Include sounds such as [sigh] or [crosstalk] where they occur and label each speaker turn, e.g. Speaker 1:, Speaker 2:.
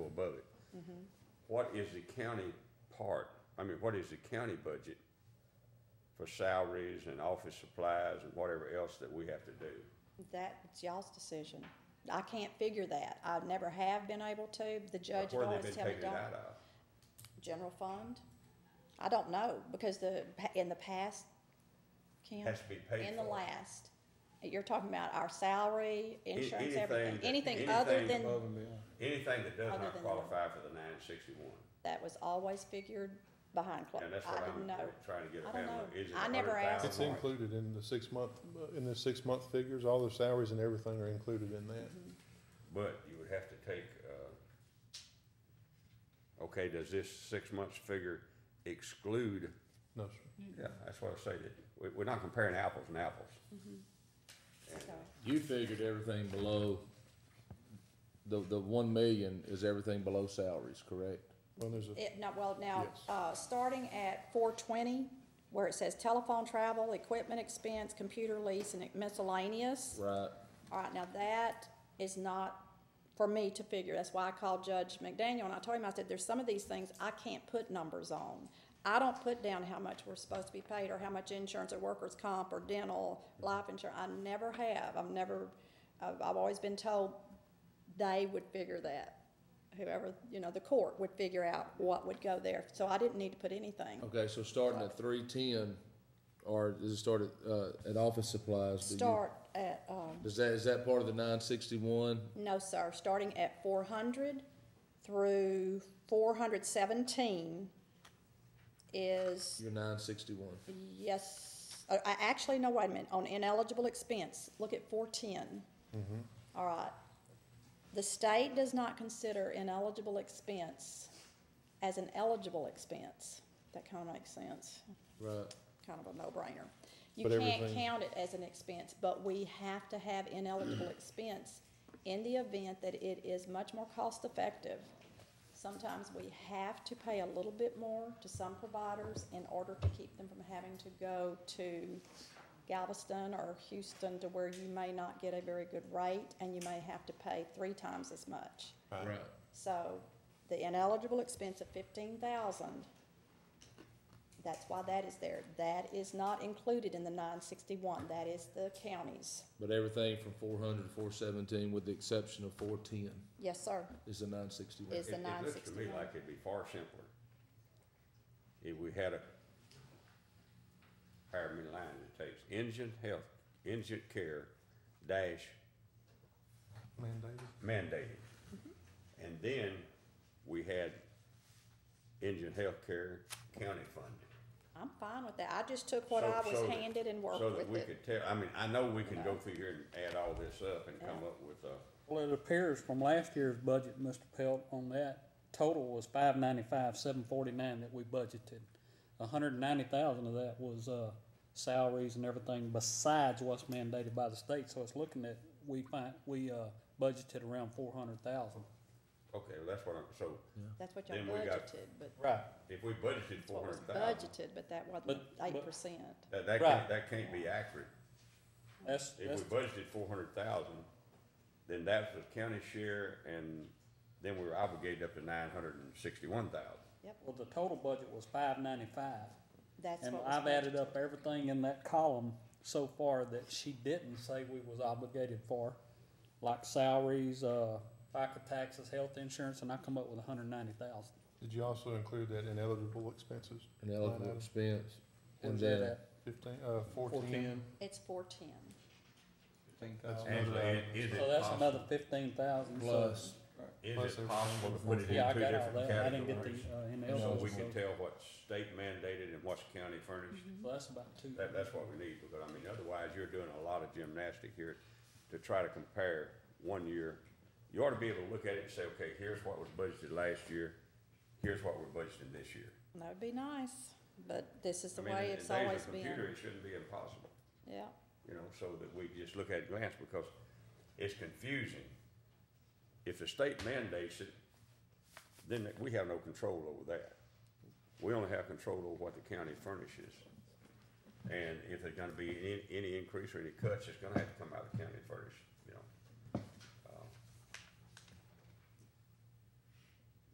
Speaker 1: what is the county part? I mean, what is the county budget for salaries and office supplies and whatever else that we have to do?
Speaker 2: That's y'all's decision. I can't figure that. I never have been able to. The judge
Speaker 1: Where have
Speaker 2: always
Speaker 1: they been
Speaker 2: tell me
Speaker 1: taking it
Speaker 2: don't.
Speaker 1: out of?
Speaker 2: General fund? I don't know, because the, in the past, Kim.
Speaker 1: Has to be paid
Speaker 2: In the
Speaker 1: for.
Speaker 2: last, you're talking about our salary, insurance, everything,
Speaker 1: anything
Speaker 2: anything
Speaker 1: that-
Speaker 2: other
Speaker 1: anything
Speaker 2: than,
Speaker 3: Above and beyond.
Speaker 1: Anything that does
Speaker 2: Other
Speaker 1: not
Speaker 2: than-
Speaker 1: qualify for the nine sixty-one.
Speaker 2: that was always figured behind closed.
Speaker 1: And that's
Speaker 2: I
Speaker 1: what
Speaker 2: didn't
Speaker 1: I'm
Speaker 2: know.
Speaker 1: trying to get
Speaker 2: I
Speaker 1: a
Speaker 2: don't
Speaker 1: handle.
Speaker 2: know.
Speaker 1: Is it
Speaker 2: I never asked.
Speaker 3: It's
Speaker 1: 100,000?
Speaker 3: included in the six month, in the six month figures, all the salaries and everything are included in that.
Speaker 1: But you would have to take, uh, okay, does this six months figure exclude?
Speaker 3: No, sir.
Speaker 1: Yeah, that's what I say, that we, we're not comparing apples and apples.
Speaker 2: So,
Speaker 4: You figured everything below, the, the one million is everything below salaries, correct?
Speaker 3: Well, there's a,
Speaker 2: It, no, well, now,
Speaker 3: Yes.
Speaker 2: uh, starting at four twenty, where it says telephone travel, equipment expense, computer lease, and miscellaneous.
Speaker 4: Right,
Speaker 2: All right, now that is not for me to figure. That's why I called Judge McDaniel and I told him, I said, there's some of these things I can't put numbers on. I don't put down how much we're supposed to be paid or how much insurance or workers' comp or dental, life insurance. I never have. I've never, I've, I've always been told they would figure that. Whoever, you know, the court would figure out what would go there. So I didn't need to put anything.
Speaker 4: okay, so starting at three-ten, or does it start at, uh, at office supplies? Do you-
Speaker 2: Start at, um,
Speaker 4: Does that, is that part of the nine sixty-one?
Speaker 2: No, sir, starting at four hundred through four hundred seventeen is,
Speaker 4: Your nine sixty-one,
Speaker 2: yes, uh, I, I actually, no, wait a minute, on ineligible expense, look at four ten. All right. The state does not consider ineligible expense as an eligible expense. That kinda makes sense
Speaker 4: right,
Speaker 2: kind of a no-brainer. You
Speaker 3: But
Speaker 2: can't
Speaker 3: everything-
Speaker 2: count it as an expense, but we have to have
Speaker 3: [clears throat]
Speaker 2: ineligible expense in the event that it is much more cost-effective. Sometimes we have to pay a little bit more to some providers in order to keep them from having to go to Galveston or Houston to where you may not get a very good rate and you may have to pay three times as much.
Speaker 4: right.
Speaker 2: So the ineligible expense of fifteen thousand, that's why that is there. That is not included in the nine sixty-one, that is the county's.
Speaker 4: But everything from four hundred to four seventeen, with the exception of four-ten,
Speaker 2: Yes, sir.
Speaker 4: is the nine sixty-one.
Speaker 2: Is- It's the
Speaker 1: It- It looks to me
Speaker 2: 961.
Speaker 1: like it'd be far simpler if we had a, however many lines it takes, indigent health, indigent care dash
Speaker 3: mandated.
Speaker 1: mandated.
Speaker 2: Mm-hmm.
Speaker 1: And then we had indigent health care county funded.
Speaker 2: I'm fine with that. I just took what I
Speaker 1: So-
Speaker 2: was
Speaker 1: so that-
Speaker 2: handed and worked
Speaker 1: So that
Speaker 2: with
Speaker 1: we
Speaker 2: it.
Speaker 1: could tell, I mean, I know we can go through here and add all this up and come up with a,
Speaker 5: Well, it appears from last year's budget, Mr. Pelt, on that, total was five ninety-five, seven forty-nine that we budgeted. A hundred and ninety thousand of that was, uh, salaries and everything besides what's mandated by the state, so it's looking at, we find, we, uh, budgeted around four hundred thousand.
Speaker 1: okay, well, that's what I'm, so
Speaker 2: That's what y'all
Speaker 1: Then we got-
Speaker 2: budgeted, but
Speaker 5: Right.
Speaker 1: if we budgeted
Speaker 2: that's what
Speaker 1: four
Speaker 2: was
Speaker 1: hundred thousand,
Speaker 2: budgeted, but that wasn't
Speaker 5: But- but-
Speaker 2: eight percent.
Speaker 1: that, that
Speaker 5: Right.
Speaker 1: can't, that can't be accurate.
Speaker 5: That's,
Speaker 1: If
Speaker 5: that's,
Speaker 1: we budgeted four hundred thousand, then that's the county share and then we were obligated up to nine hundred and sixty-one thousand.
Speaker 2: Yep,
Speaker 5: well, the total budget was five ninety-five.
Speaker 2: that's
Speaker 5: And
Speaker 2: what was
Speaker 5: I've added
Speaker 2: budgeted.
Speaker 5: up everything in that column so far that she didn't say we was obligated for, like salaries, uh, FICA taxes, health insurance, and I come up with a hundred and ninety thousand.
Speaker 3: Did you also include that ineligible expenses?
Speaker 4: An eligible
Speaker 3: Line item
Speaker 4: expense, and
Speaker 5: Where's that
Speaker 4: then,
Speaker 5: at?
Speaker 3: Fifteen, uh, fourteen.
Speaker 4: four-ten,
Speaker 2: It's four-ten.
Speaker 3: That's another
Speaker 1: Angela,
Speaker 3: item.
Speaker 1: i- uh, is
Speaker 5: So
Speaker 1: it
Speaker 5: that's another
Speaker 1: possible,
Speaker 5: fifteen thousand, so,
Speaker 4: plus,
Speaker 1: is
Speaker 3: plus
Speaker 1: it
Speaker 3: everything
Speaker 1: possible to put it in two
Speaker 5: yeah, I got all
Speaker 1: different
Speaker 5: that, I didn't get the,
Speaker 1: categories?
Speaker 5: uh,
Speaker 1: So
Speaker 5: ineligible,
Speaker 1: we
Speaker 5: so,
Speaker 1: can tell what's state mandated and what's county furnished?
Speaker 5: so that's about two.
Speaker 1: That, that's what we need, because I mean, otherwise you're doing a lot of gymnastic here to try to compare one year. You ought to be able to look at it and say, okay, here's what was budgeted last year, here's what we're budgeting this year.
Speaker 2: That would be nice, but this is
Speaker 1: I
Speaker 2: the
Speaker 1: mean,
Speaker 2: way
Speaker 1: in- in
Speaker 2: it's
Speaker 1: days of
Speaker 2: always
Speaker 1: Computer,
Speaker 2: been.
Speaker 1: it shouldn't be impossible,
Speaker 2: Yeah,
Speaker 1: you know, so that we just look at it glance, because it's confusing. If the state mandates it, then we have no control over that. We only have control over what the county furnishes. And if there's gonna be any, any increase or any cuts, it's gonna have to come out of the county furnished. Um,